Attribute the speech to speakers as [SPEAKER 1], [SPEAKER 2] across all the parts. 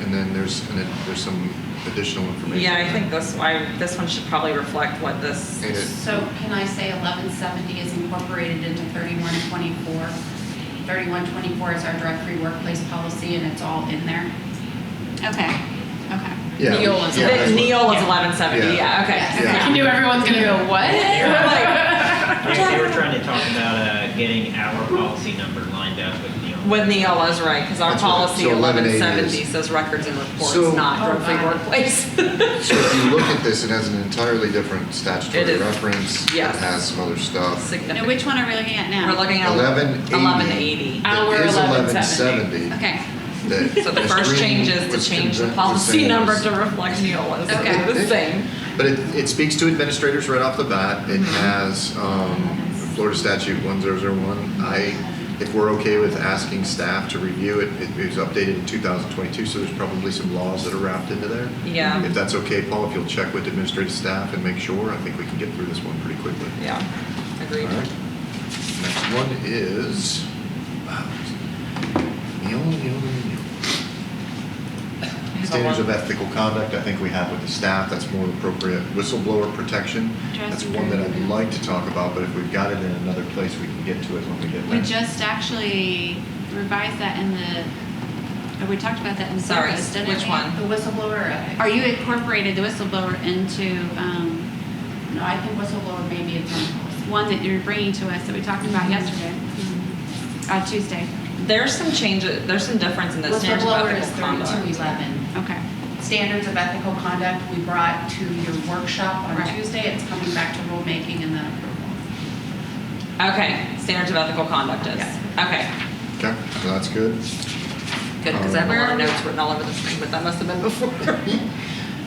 [SPEAKER 1] and then there's, and then there's some additional information.
[SPEAKER 2] Yeah, I think this, I, this one should probably reflect what this,
[SPEAKER 1] And it-
[SPEAKER 3] So can I say 1170 is incorporated into 3124? 3124 is our drug-free workplace policy, and it's all in there?
[SPEAKER 4] Okay, okay.
[SPEAKER 1] yeah, we-
[SPEAKER 5] Neola's-
[SPEAKER 1] yeah, that's what-
[SPEAKER 2] Neil is eleven seventy, yeah,
[SPEAKER 1] Yeah.
[SPEAKER 2] okay.
[SPEAKER 3] Yes.
[SPEAKER 1] Yeah.
[SPEAKER 5] I knew everyone's gonna go, what?
[SPEAKER 6] They they were trying to talk about uh, getting our policy number lined up with Neil.
[SPEAKER 2] With Neola's right, because our
[SPEAKER 1] That's what-
[SPEAKER 2] policy
[SPEAKER 1] so
[SPEAKER 2] eleven
[SPEAKER 1] 1180
[SPEAKER 2] seventy
[SPEAKER 1] is-
[SPEAKER 2] says records and reports,
[SPEAKER 1] So-
[SPEAKER 2] not
[SPEAKER 3] Oh,
[SPEAKER 2] drug-free
[SPEAKER 3] God.
[SPEAKER 2] workplace.
[SPEAKER 1] So if you look at this, it has an entirely different
[SPEAKER 2] It
[SPEAKER 1] statutory
[SPEAKER 2] is.
[SPEAKER 1] reference.
[SPEAKER 2] Yes.
[SPEAKER 1] It has some other stuff.
[SPEAKER 4] Now,
[SPEAKER 2] Significant.
[SPEAKER 4] which one are we looking at now?
[SPEAKER 2] We're looking at
[SPEAKER 1] Eleven eighty.
[SPEAKER 2] eleven eighty.
[SPEAKER 5] Our
[SPEAKER 1] It is
[SPEAKER 5] 1170.
[SPEAKER 1] 1170.
[SPEAKER 4] Okay,
[SPEAKER 1] that
[SPEAKER 2] So the
[SPEAKER 1] Ms.
[SPEAKER 2] first
[SPEAKER 1] Green
[SPEAKER 2] change is
[SPEAKER 1] was
[SPEAKER 2] to change the
[SPEAKER 1] convinced-
[SPEAKER 2] policy
[SPEAKER 1] saying
[SPEAKER 2] number
[SPEAKER 1] was-
[SPEAKER 2] to reflect Neola's,
[SPEAKER 4] Okay.
[SPEAKER 2] the same.
[SPEAKER 1] But it, it speaks to administrators right off the bat.
[SPEAKER 2] Mm-hmm.
[SPEAKER 1] It has um, Florida statute one zero zero one. I, if we're okay with asking staff to review it, it was updated in two thousand twenty-two, so there's probably some laws that are wrapped into there.
[SPEAKER 2] Yeah.
[SPEAKER 1] If that's okay, Paul, if you'll check with administrative staff and make sure, I think we can get through this one pretty quickly.
[SPEAKER 2] Yeah,
[SPEAKER 1] All
[SPEAKER 2] agreed.
[SPEAKER 1] right. Next one is, wow, Neil, Neil, Neil.
[SPEAKER 2] Here's the
[SPEAKER 1] Standards
[SPEAKER 2] one.
[SPEAKER 1] of ethical conduct, I think we have with the staff, that's more appropriate. Whistleblower protection, that's one that I'd like to talk about, but if we've got it in another place, we can get to it when we get
[SPEAKER 4] we
[SPEAKER 1] there.
[SPEAKER 4] just actually revised that in the, or we talked about that in
[SPEAKER 2] Sorry,
[SPEAKER 4] service, didn't we?
[SPEAKER 2] which one?
[SPEAKER 3] The whistleblower, uh,
[SPEAKER 4] Are you incorporated the whistleblower into, um,
[SPEAKER 3] no, I think whistleblower may be its own policy.
[SPEAKER 4] one that you're bringing to us that we talked about yesterday, uh, Tuesday?
[SPEAKER 2] There's some changes, there's some difference in the standards of
[SPEAKER 3] Whistleblower is
[SPEAKER 2] ethical conduct.
[SPEAKER 3] 3211.
[SPEAKER 4] Okay.
[SPEAKER 3] Standards of ethical conduct, we brought to your workshop on
[SPEAKER 4] Right.
[SPEAKER 3] Tuesday. It's coming back to rulemaking and then approval.
[SPEAKER 2] Okay, standards of ethical conduct is, okay,
[SPEAKER 1] Okay, so that's good.
[SPEAKER 2] good, because I have a lot
[SPEAKER 4] Where-
[SPEAKER 2] of notes written all over the screen, but that must have been before.
[SPEAKER 4] Where are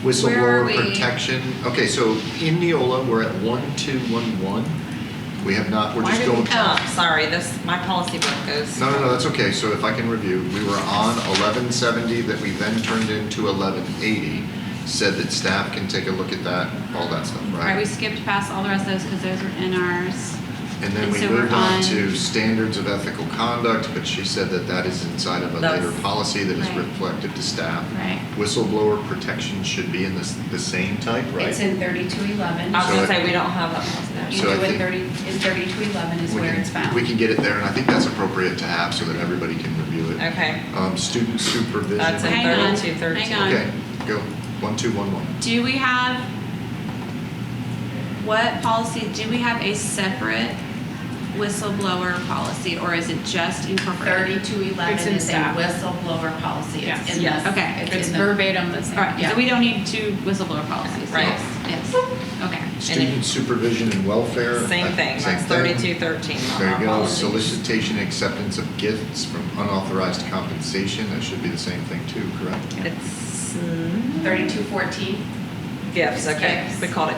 [SPEAKER 1] Whistleblower
[SPEAKER 4] we?
[SPEAKER 1] protection, okay, so in Neola, we're at one, two, one, one. We have not, we're
[SPEAKER 2] Why
[SPEAKER 1] just
[SPEAKER 2] did we-
[SPEAKER 1] going.
[SPEAKER 2] Oh, sorry, this, my policy book goes.
[SPEAKER 1] No, no, no, that's okay, so if I can review, we were on eleven seventy that we then turned into eleven eighty. Said that staff can take a look at that, all that stuff,
[SPEAKER 4] All right, we skipped past all the rest of those because those were in ours.
[SPEAKER 1] And then
[SPEAKER 4] And
[SPEAKER 1] we
[SPEAKER 4] so we're
[SPEAKER 1] moved on
[SPEAKER 4] on-
[SPEAKER 1] to standards of ethical conduct, but she said that that is inside of a
[SPEAKER 2] That's-
[SPEAKER 1] later policy that is
[SPEAKER 4] right.
[SPEAKER 1] reflective to staff.
[SPEAKER 4] Right.
[SPEAKER 1] Whistleblower protection should be in this, the same type, right?
[SPEAKER 3] It's in 3211.
[SPEAKER 2] I was gonna
[SPEAKER 1] So I-
[SPEAKER 2] say, we don't have that policy there.
[SPEAKER 3] You
[SPEAKER 1] So
[SPEAKER 3] do
[SPEAKER 1] I
[SPEAKER 3] it
[SPEAKER 1] think-
[SPEAKER 3] 30, in 3211 is
[SPEAKER 1] We
[SPEAKER 3] where
[SPEAKER 1] can-
[SPEAKER 3] it's found.
[SPEAKER 1] We can get it there, and I think that's appropriate to have so that everybody can review it.
[SPEAKER 2] Okay,
[SPEAKER 1] Um, student supervision.
[SPEAKER 2] That's in
[SPEAKER 4] Hang on,
[SPEAKER 2] 32, 13.
[SPEAKER 4] Hang on.
[SPEAKER 1] Okay, go, one, two, one, one.
[SPEAKER 4] Do we have, what policy, do we have a separate whistleblower policy or is it just incorporated?
[SPEAKER 3] 3211
[SPEAKER 5] It's in
[SPEAKER 3] is a
[SPEAKER 5] staff.
[SPEAKER 3] whistleblower policy.
[SPEAKER 5] Yes.
[SPEAKER 3] It's in
[SPEAKER 2] Yes.
[SPEAKER 3] this.
[SPEAKER 4] Okay.
[SPEAKER 5] It's
[SPEAKER 3] in the-
[SPEAKER 5] verbatim the
[SPEAKER 4] All
[SPEAKER 5] same.
[SPEAKER 4] right,
[SPEAKER 3] Yeah.
[SPEAKER 4] so we don't need two whistleblower policies?
[SPEAKER 2] Right.
[SPEAKER 4] Yes, yes. okay.
[SPEAKER 1] Student supervision and welfare. I-
[SPEAKER 2] same thing,
[SPEAKER 1] uh, same
[SPEAKER 2] that's
[SPEAKER 1] thing.
[SPEAKER 2] thirty-two thirteen on
[SPEAKER 1] There
[SPEAKER 2] our
[SPEAKER 1] you go,
[SPEAKER 2] policy.
[SPEAKER 1] solicitation and acceptance of gifts from unauthorized compensation, that should be the same thing too, correct?
[SPEAKER 2] It's, mm,
[SPEAKER 3] 3214.
[SPEAKER 2] gifts, okay,
[SPEAKER 3] Gifts.
[SPEAKER 2] we called it,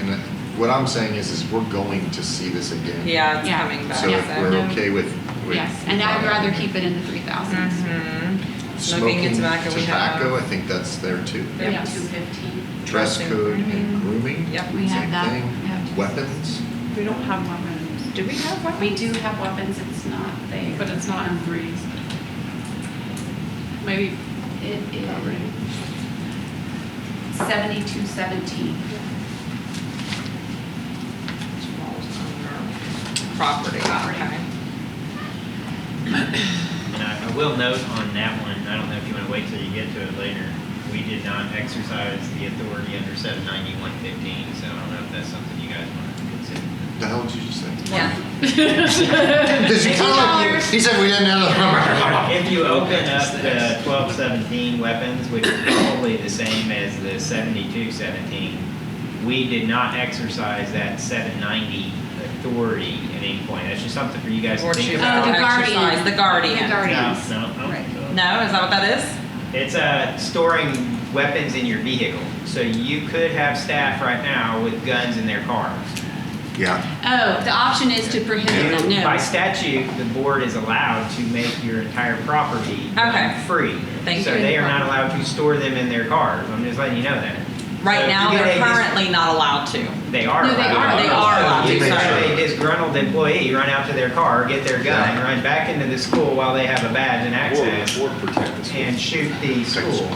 [SPEAKER 1] And that- what I'm saying is, is we're going to see this again.
[SPEAKER 2] yeah, it's
[SPEAKER 4] Yeah.
[SPEAKER 2] coming back,
[SPEAKER 1] So if
[SPEAKER 4] yeah,
[SPEAKER 1] we're
[SPEAKER 4] no.
[SPEAKER 1] okay with. with- um,
[SPEAKER 4] Yes, and I'd rather keep it in the three
[SPEAKER 3] Mm-hmm.
[SPEAKER 4] thousands.
[SPEAKER 2] Mhm. Smoking
[SPEAKER 1] Smoking,
[SPEAKER 2] and tobacco, we have.
[SPEAKER 1] tobacco, I think that's there too.
[SPEAKER 2] Yeah.
[SPEAKER 3] 3215.
[SPEAKER 1] Dress
[SPEAKER 2] Dressing.
[SPEAKER 1] code and grooming.
[SPEAKER 2] Yep.
[SPEAKER 4] We have that.
[SPEAKER 1] Same
[SPEAKER 4] We have-
[SPEAKER 1] thing. Weapons,
[SPEAKER 5] We don't have weapons,
[SPEAKER 2] Do we have one?
[SPEAKER 3] We do have weapons, it's not there.
[SPEAKER 5] but it's not in threes. Maybe
[SPEAKER 3] It is 7217.
[SPEAKER 2] Property, okay.
[SPEAKER 6] And I, I will note on that one, I don't know if you want to wait till you get to it later, we did not exercise the authority under seven ninety-one fifteen, so I don't know if that's something you guys want to consider.
[SPEAKER 1] the hell did you just say?
[SPEAKER 2] Yeah.
[SPEAKER 1] Did you tell him? He said we didn't have the.
[SPEAKER 6] If you open up the twelve seventeen weapons, which is probably the same as the seventy-two seventeen, we did not exercise that seven ninety authority at any point. That's just something for you guys to
[SPEAKER 2] Or
[SPEAKER 6] think
[SPEAKER 2] choose
[SPEAKER 6] about.
[SPEAKER 4] Oh, the
[SPEAKER 2] to exercise,
[SPEAKER 4] guardian.
[SPEAKER 2] The guardian.
[SPEAKER 4] The guardians.
[SPEAKER 6] No, no, I don't think so.
[SPEAKER 2] No, is that what that is?
[SPEAKER 6] It's uh, storing weapons in your vehicle. So you could have staff right now with guns in their cars.
[SPEAKER 1] Yeah,
[SPEAKER 4] Oh, the option is to prohibit them,
[SPEAKER 6] You- By
[SPEAKER 4] no.
[SPEAKER 6] statute, the board is allowed to make your entire property um,
[SPEAKER 2] Okay.
[SPEAKER 6] free.
[SPEAKER 2] Thank
[SPEAKER 6] So
[SPEAKER 2] you.
[SPEAKER 6] they are not allowed to store them in their cars. I'm just letting you know that. So
[SPEAKER 1] Uh,
[SPEAKER 2] Right now,
[SPEAKER 6] you
[SPEAKER 2] they're
[SPEAKER 6] get a-
[SPEAKER 2] currently not allowed to.
[SPEAKER 6] They are.
[SPEAKER 3] No, they
[SPEAKER 6] allowed.
[SPEAKER 3] are. They
[SPEAKER 2] are allowed
[SPEAKER 6] You
[SPEAKER 2] to,
[SPEAKER 6] make
[SPEAKER 1] sorry.
[SPEAKER 6] a disgruntled employee run out to their car, get their gun,
[SPEAKER 1] Yeah.
[SPEAKER 6] run back into the school while they have a badge and access,
[SPEAKER 7] Or, or protect the school.
[SPEAKER 6] and shoot the school.